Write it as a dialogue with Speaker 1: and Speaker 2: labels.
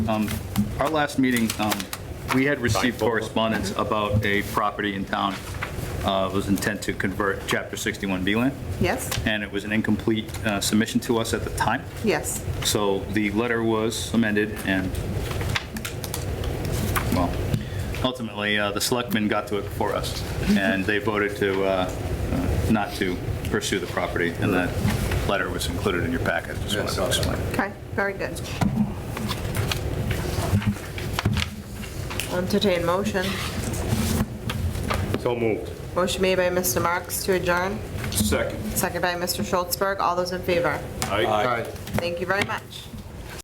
Speaker 1: Um, Our last meeting, um, we had received correspondence about a property in town uh, was intent to convert Chapter 61B land,
Speaker 2: Yes,
Speaker 1: and it was an incomplete uh, submission to us at the time.
Speaker 2: yes.
Speaker 1: So the letter was amended and, well, ultimately, uh, the selectmen got to it for us, and they voted to, uh, uh, not to pursue the property, and that letter was included in your packet, just wanted to explain.
Speaker 2: Okay, very good. I'll Entertain motion.
Speaker 3: So moved.
Speaker 2: Motion made by Mr. Marks to adjourn,
Speaker 3: Second.
Speaker 2: second by Mr. Schultzberg. All those in favor?
Speaker 3: Aye.
Speaker 2: Thank you very much.